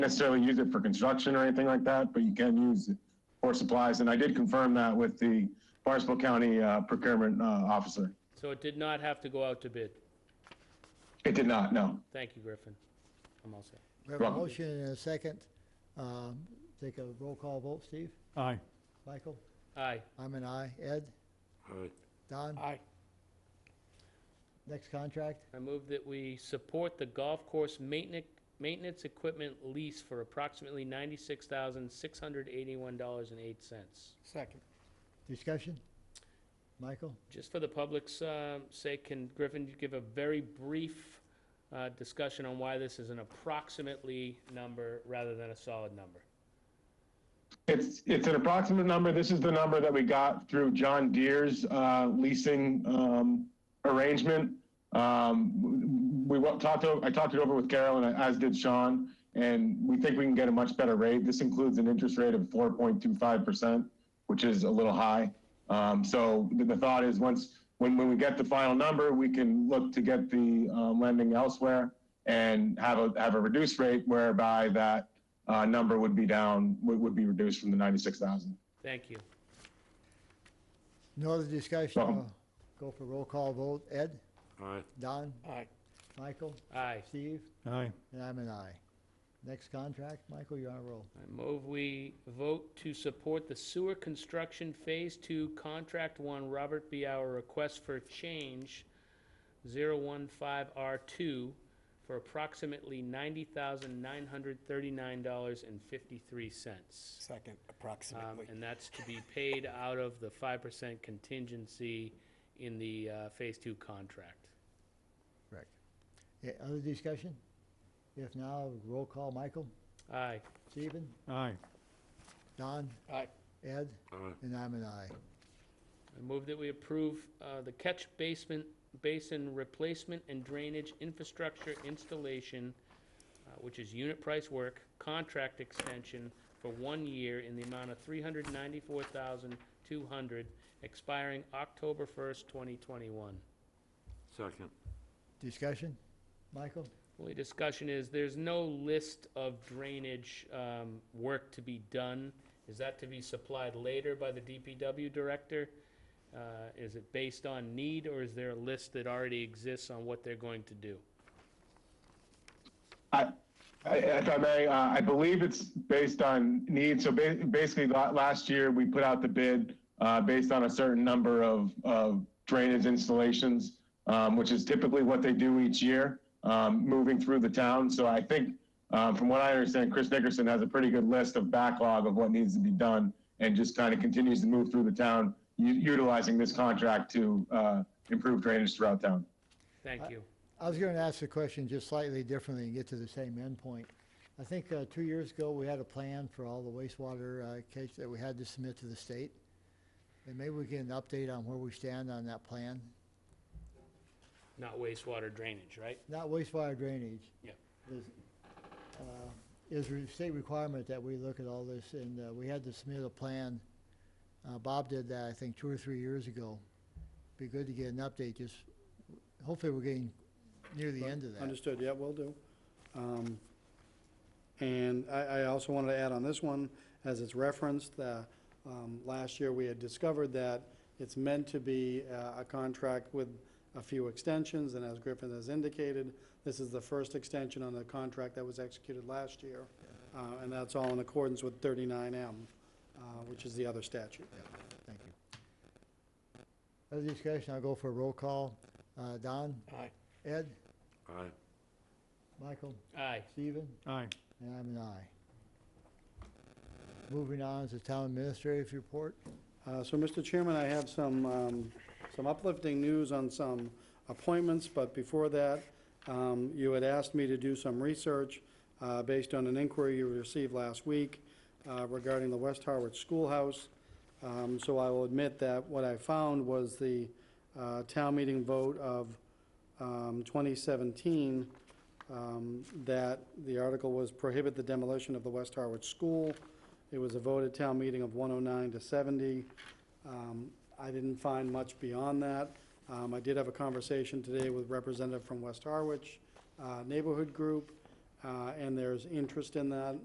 necessarily use it for construction or anything like that, but you can use it for supplies. And I did confirm that with the Barnstable County uh, procurement uh, officer. So it did not have to go out to bid. It did not, no. Thank you, Griffin. I'm all set. We have a Wrong. motion and a second. Um, Take a roll call vote, Steve? Aye. Michael? Aye. I'm an aye. Ed? Don? Aye. Next contract? I move that we support the golf course maintenance, maintenance equipment lease for approximately ninety-six thousand, six hundred eighty-one dollars and eight cents. Second. Discussion? Michael? Just for the public's uh, sake, can Griffin you give a very brief uh, discussion on why this is an approximately number rather than a solid number? It's, it's an approximate number. This is the number that we got through John Deere's uh, leasing um, arrangement. Um, We wa- talked, o- I talked it over with Carol and as did Sean, and we think we can get a much better rate. This includes an interest rate of 4.25%, which is a little high. Um, So the the thought is, once, when, when we get the final number, we can look to get the um, lending elsewhere and have a, have a reduced rate whereby that uh, number would be down, would, would be reduced from the 96,000. Thank you. No other discussion? Wrong. I'll Go for roll call vote. Ed? Aye. Don? Aye. Michael? Aye. Steve? Aye. And I'm an aye. Next contract? Michael, you're on a roll. I move we vote to support the sewer construction Phase Two, Contract One, Robert B. Hour request for change 015R2 for approximately $90,939.53. Second, Um, approximately. And that's to be paid out of the 5% contingency in the uh, Phase Two contract. Correct. Yeah, Other discussion? If now, roll call. Michael? Aye. Stephen? Aye. Don? Aye. Ed? Aye. And I'm an aye. I move that we approve uh, the catch basement, basin replacement and drainage infrastructure installation, uh, which is unit price work, contract extension for one year in the amount of three hundred ninety-four thousand two hundred, expiring October first, twenty twenty-one. Second. Discussion? Michael? Only discussion is, there's no list of drainage um, work to be done. Is that to be supplied later by the DPW director? Uh, Is it based on need, or is there a list that already exists on what they're going to do? I, I- if I may, uh, I believe it's based on need. So ba- basically, la- last year, we put out the bid uh, based on a certain number of, of drainage installations, um, which is typically what they do each year, um, moving through the town. So I think, uh, from what I understand, Chris Nickerson has a pretty good list of backlog of what needs to be done and just kind of continues to move through the town, u- utilizing this contract to uh, improve drainage throughout town. Thank you. I was going to ask the question just slightly differently and get to the same endpoint. I think uh, two years ago, we had a plan for all the wastewater uh, case that we had to submit to the state. And maybe we get an update on where we stand on that plan. Not wastewater drainage, right? Not wastewater drainage. Yeah. There's, uh, Is a state requirement that we look at all this, and uh, we had to submit a plan. Uh, Bob did that, I think, two or three years ago. Be good to get an update, just, hopefully we're getting near the end of that. Understood, yeah, will do. Um, And I, I also wanted to add on this one, as it's referenced, that um, last year we had discovered that it's meant to be uh, a contract with a few extensions, and as Griffin has indicated, this is the first extension on the contract that was executed last year, Uh, and that's all in accordance with 39M, uh, which is the other statute. Thank you. Other discussion, I'll go for a roll call. Uh, Don? Aye. Ed? Aye. Michael? Aye. Stephen? Aye. And I'm an aye. Moving on to town administrative report. Uh, So, Mr. Chairman, I have some, um, some uplifting news on some appointments, but before that, um, you had asked me to do some research uh, based on an inquiry you received last week uh, regarding the West Harwich Schoolhouse. Um, So I will admit that what I found was the uh, town meeting vote of um, 2017, um, that the article was prohibit the demolition of the West Harwich School. It was a vote at town meeting of 109 to 70. Um, I didn't find much beyond that. Um, I did have a conversation today with representative from West Harwich uh, Neighborhood Group, uh, and there's interest in that,